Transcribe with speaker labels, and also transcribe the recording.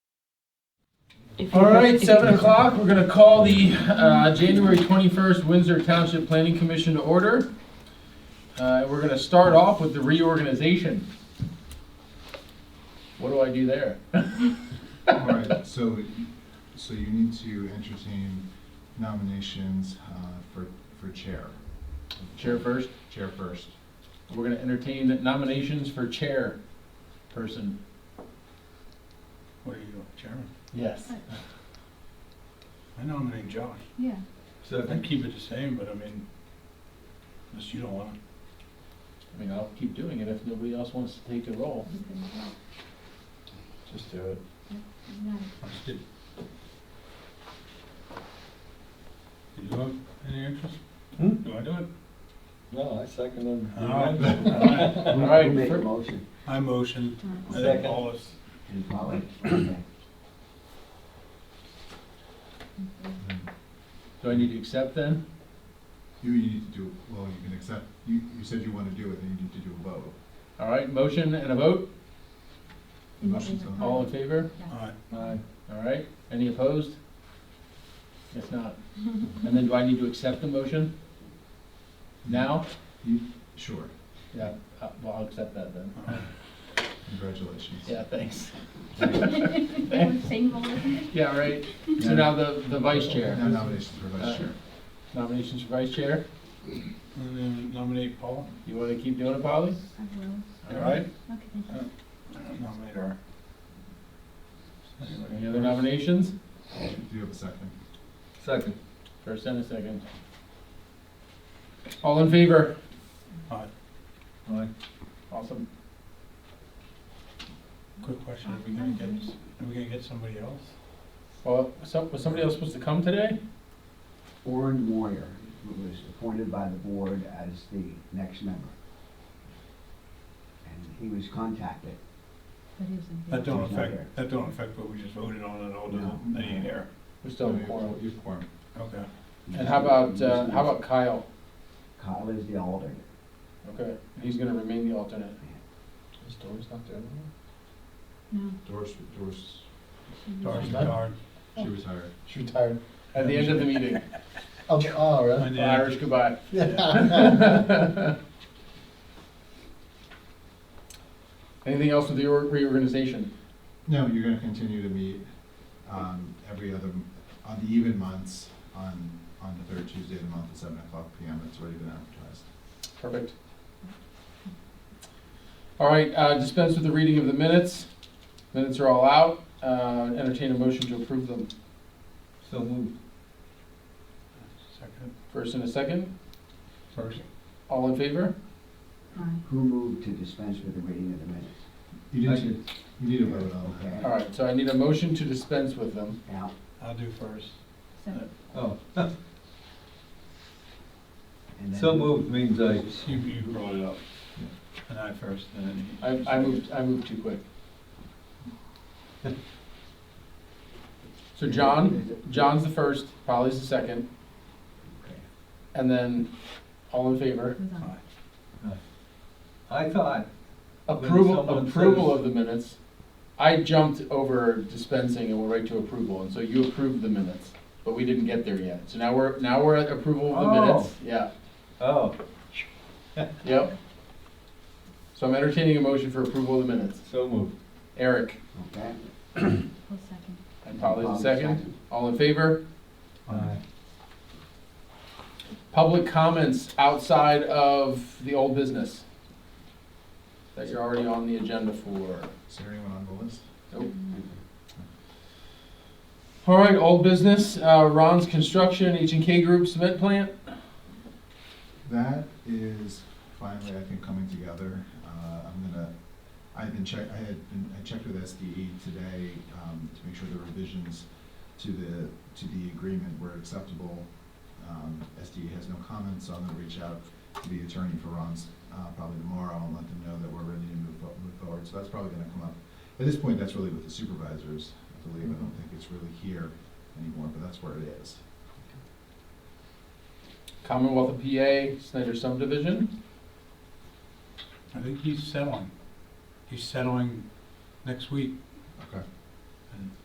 Speaker 1: If you
Speaker 2: All
Speaker 1: have-
Speaker 2: right,
Speaker 1: if you-
Speaker 2: 7 o'clock, we're going to call the uh, January 21st Windsor Township Planning Commission to order. Uh, We're going to start off with the reorganization. What do I do there?
Speaker 3: All right, so, so you need to entertain nominations uh, for, for chair.
Speaker 2: Chair first.
Speaker 3: Chair first.
Speaker 2: We're going to entertain nominations for chair person.
Speaker 4: What are you, chairman?
Speaker 2: Yes.
Speaker 4: I nominate Josh.
Speaker 5: Yeah,
Speaker 4: I can keep it the same, but I mean, unless you don't want it.
Speaker 2: I mean, I'll keep doing it if nobody else wants to take the role.
Speaker 5: you can,
Speaker 2: Just do it.
Speaker 5: no,
Speaker 4: I just did. Do you have any interest?
Speaker 6: Hmm?
Speaker 4: Do I do it?
Speaker 6: No, I second them.
Speaker 4: No.
Speaker 2: All right,
Speaker 6: Make a
Speaker 2: fir-
Speaker 6: motion.
Speaker 4: I motion. I think
Speaker 6: Second.
Speaker 4: all is,
Speaker 2: do I need to accept then?
Speaker 3: You, you need to do, well, you can accept, you, you said you want to do it, then you need to do a vote.
Speaker 2: All right, motion and a vote.
Speaker 3: The motion's
Speaker 5: Aye.
Speaker 3: on.
Speaker 2: All in favor?
Speaker 4: alright,
Speaker 2: Aye. All right, any opposed? If not, and then do I need to accept the motion now?
Speaker 3: Sure,
Speaker 2: Yeah, uh, well, I'll accept that then.
Speaker 3: congratulations.
Speaker 2: Yeah, thanks.
Speaker 5: They were saying, well, isn't it?
Speaker 2: Yeah, right, so now the, the vice
Speaker 3: Now
Speaker 2: chair,
Speaker 3: nominations for vice chair.
Speaker 2: nominations for vice chair,
Speaker 4: and then nominate Paul,
Speaker 2: you wanna keep doing it, Polly?
Speaker 5: I will,
Speaker 2: All right,
Speaker 5: okay, thank you.
Speaker 4: nominate her.
Speaker 2: any other nominations?
Speaker 3: Do you have a second?
Speaker 6: Second.
Speaker 2: First and a second. All in favor?
Speaker 4: Alright,
Speaker 6: Aye.
Speaker 2: Awesome.
Speaker 4: quick question, are we gonna get, are we gonna get somebody else?
Speaker 2: Well, some, was somebody else supposed to come today?
Speaker 7: Orrin Moyer, who was appointed by the board as the next member. And he was contacted.
Speaker 5: But he was in
Speaker 4: That don't
Speaker 7: He's not here.
Speaker 4: affect, that don't affect what we just voted on at all, does
Speaker 7: No.
Speaker 4: it? That ain't here.
Speaker 2: We're still in
Speaker 3: You-
Speaker 2: quorum.
Speaker 3: You have quorum.
Speaker 4: Okay.
Speaker 2: And how about, uh, how about Kyle?
Speaker 7: Kyle is the alternate.
Speaker 2: Okay, he's gonna remain the alternate.
Speaker 6: Is Doris not there anymore?
Speaker 5: No,
Speaker 3: Doris, Doris,
Speaker 5: she was-
Speaker 4: Darn,
Speaker 2: Done?
Speaker 4: darn.
Speaker 3: she retired.
Speaker 2: She retired. At the end of the meeting,
Speaker 6: Oh, all right.
Speaker 4: And then-
Speaker 2: Irish goodbye. Anything else with the or- reorganization?
Speaker 3: No, you're gonna continue to meet, um, every other, on the even months, on, on the third Tuesday of the month at seven o'clock PM, it's already been advertised.
Speaker 2: Perfect. All right, uh, dispense with the reading of the minutes. Minutes are all out. Uh, Entertain a motion to approve them.
Speaker 6: So moved.
Speaker 4: Second,
Speaker 2: First and a second.
Speaker 4: first.
Speaker 2: All in favor?
Speaker 5: Aye.
Speaker 7: Who moved to dispense with the reading of the minutes?
Speaker 3: You didn't, you need a vote on that.
Speaker 7: Okay,
Speaker 2: All right, so I need a motion to dispense with them.
Speaker 7: Al,
Speaker 4: I'll do first.
Speaker 5: So,
Speaker 6: Oh,
Speaker 7: and then.
Speaker 6: so moved means I,
Speaker 4: You, you brought it up. And I first, and then he.
Speaker 2: I I moved, I moved too quick. So John, John's the first, Polly's the second,
Speaker 7: Okay.
Speaker 2: and then all in favor?
Speaker 5: it was on.
Speaker 4: Aye.
Speaker 6: I thought,
Speaker 2: Approval,
Speaker 6: someone
Speaker 2: approval
Speaker 6: says-
Speaker 2: of the minutes. I jumped over dispensing and we're right to approval, and so you approved the minutes, but we didn't get there yet. So now we're, now we're at approval of the
Speaker 6: Oh.
Speaker 2: minutes, yeah,
Speaker 6: oh,
Speaker 2: yep. So I'm entertaining a motion for approval of the minutes.
Speaker 6: so moved.
Speaker 2: Eric
Speaker 7: Okay.
Speaker 5: Full second.
Speaker 2: and Polly's the
Speaker 7: Polly's
Speaker 2: second,
Speaker 7: second.
Speaker 2: all in favor? Public comments outside of the old business that you're already on the agenda for.
Speaker 3: Is there anyone on the list?
Speaker 5: Mm-hmm.
Speaker 2: All right, old business, uh, Ron's Construction, H and K Group Cement Plant.
Speaker 3: That is finally, I think, coming together. Uh, I'm gonna, I've been check, I had been, I checked with SDE today, um, to make sure the revisions to the, to the agreement were acceptable. Um, SDE has no comments, so I'm gonna reach out to the attorney for Ron's, uh, probably tomorrow and let them know that we're ready to move, fo- move forward. So that's probably gonna come up. At this point, that's really with the supervisors, I believe. I don't think it's really here anymore, but that's where it is.
Speaker 2: Commonwealth of PA, Snyder subdivision.
Speaker 4: I think he's settling. He's settling next week.
Speaker 3: Okay.
Speaker 4: And